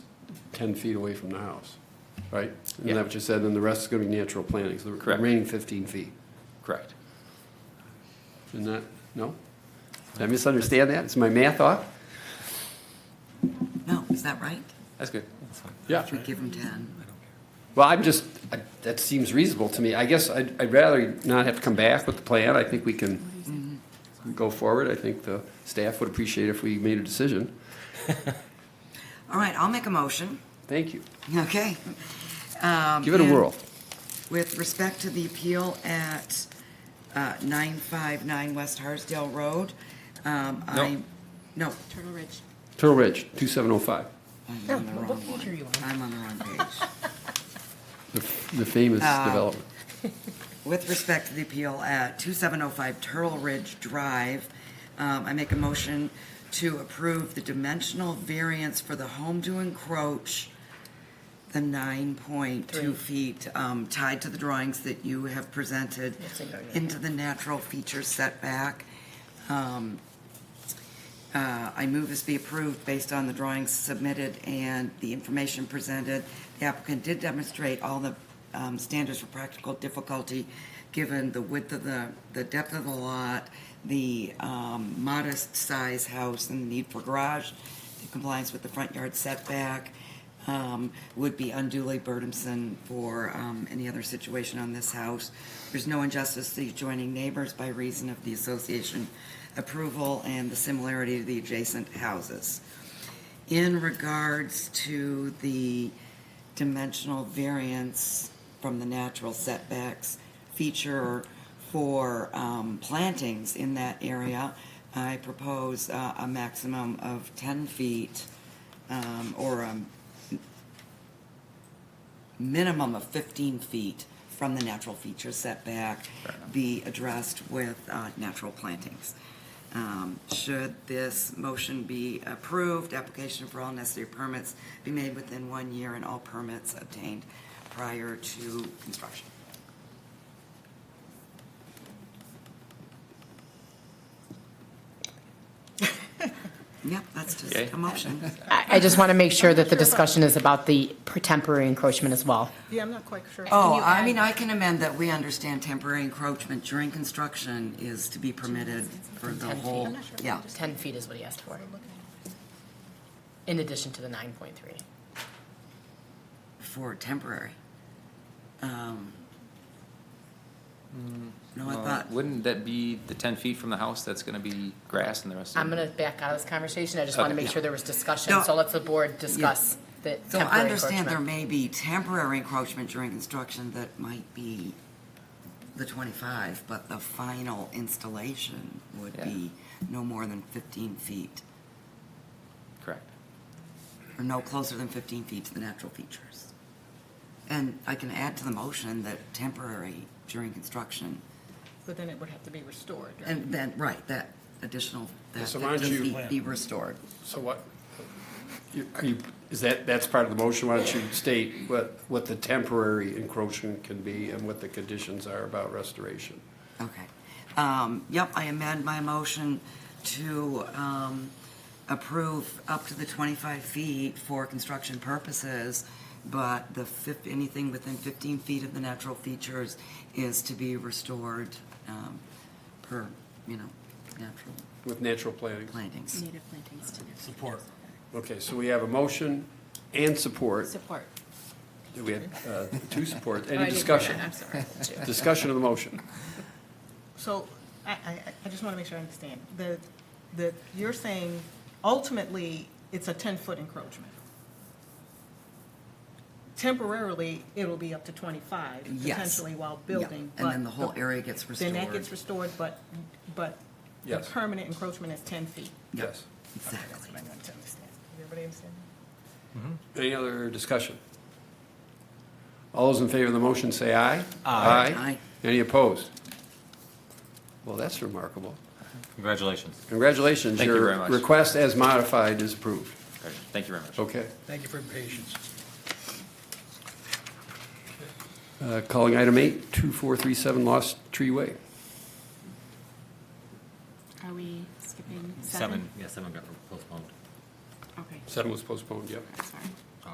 10 feet away from the house, right? Isn't that what you said? Then the rest is going to be natural planting, so the Correct. remaining 15 feet. Correct. Isn't that, no? Did I misunderstand that? Is my math off? No, is that right? That's good. That's fine. Yeah. Should we give him 10? Well, I'm just, I- that seems reasonable to me. I guess I'd, I'd rather not have to come back with the plan. I think we can Mm-hmm. go forward. I think the staff would appreciate if we made a decision. All right, I'll make a motion. Thank you. Okay. Um, Give it a and- whirl. With respect to the appeal at uh, 959 West Harsdale Road, um, I, no, Turtle Ridge. Turtle Ridge, 2705, I'm on the what wrong page are you one. on? I'm on the wrong page. the the famous Uh, development. With respect to the appeal at 2705 Turtle Ridge Drive, um, I make a motion to approve the dimensional variance for the home to encroach the 9.2 feet um, tied to the drawings that you have presented Yes, I know, yeah. into the natural feature setback. Um, uh, I move this be approved based on the drawings submitted and the information presented. The applicant did demonstrate all the um, standards for practical difficulty, given the width of the, the depth of the lot, the um, modest size house and the need for garage, the compliance with the front yard setback um, would be unduly burdensome for um, any other situation on this house. There's no injustice to the adjoining neighbors by reason of the association approval and the similarity to the adjacent houses. In regards to the dimensional variance from the natural setbacks feature for um, plantings in that area, I propose uh, a maximum of 10 feet um, or a minimum of 15 feet from the natural feature setback be addressed with uh, natural plantings. Um, Should this motion be approved, application for all necessary permits be made within one year and all permits obtained prior to construction. Yep, that's Okay. just a motion. I I just want to make sure that the discussion is about the per- temporary encroachment as well. Yeah, I'm not quite sure. Oh, I mean, I can amend that we understand temporary encroachment during construction is to be permitted for the Ten feet. whole, I'm not sure. yeah. 10 feet is what he asked for, in addition to the 9.3. for temporary. Um, Hmm. No, I thought, Uh, Wouldn't that be the ten feet from the house that's gonna be grass and the rest of it? I'm going to back out of this conversation, I just want to Okay. make sure there was No. discussion, so let's the board discuss the so I temporary understand there encroachment. may be temporary encroachment during construction that might be the twenty-five, but the final installation would Yeah. be no more than fifteen feet, Correct. or no closer than fifteen feet to the natural features. And I can add to the motion that temporary during construction, But then it would have to be restored, right? and then, right, that additional, that So why don't you- fifteen feet be restored. So what, you- are you, is that, that's part of the motion? Why don't you state what, what the temporary encroachment can be and what the conditions are about restoration? Okay. Um, Yep, I amend my motion to um, approve up to the 25 feet for construction purposes, but the, fif- anything within 15 feet of the natural features is to be restored um, per, you know, natural With natural planting? plantings. Native plantings to Support. Okay, so we have a motion and support. Support. Do we have uh, two supports? Oh, I Any didn't hear discussion? that, I'm sorry. Discussion of the motion. So I, I, I just want to make sure I understand. The, the, you're saying ultimately, it's a 10-foot encroachment. Temporarily, it'll be up to 25, Yes. potentially while Yeah, building. And then but the whole area gets restored. Then that gets restored, but, but the Yes. permanent encroachment is 10 feet. Yes. That's Exactly. what I want to understand. Does everybody understand? Any other discussion? All those in favor of the motion say aye. Aye. Any opposed? Well, that's remarkable. Congratulations. Congratulations. Thank you very much. Your request as modified is approved. Thank you very much. Okay. Thank you for your patience. Uh, Calling item eight, 2437 Lost Tree Way. Are we skipping seven? Seven, yeah, seven got postponed. Okay, Seven was postponed, yep. I'm sorry.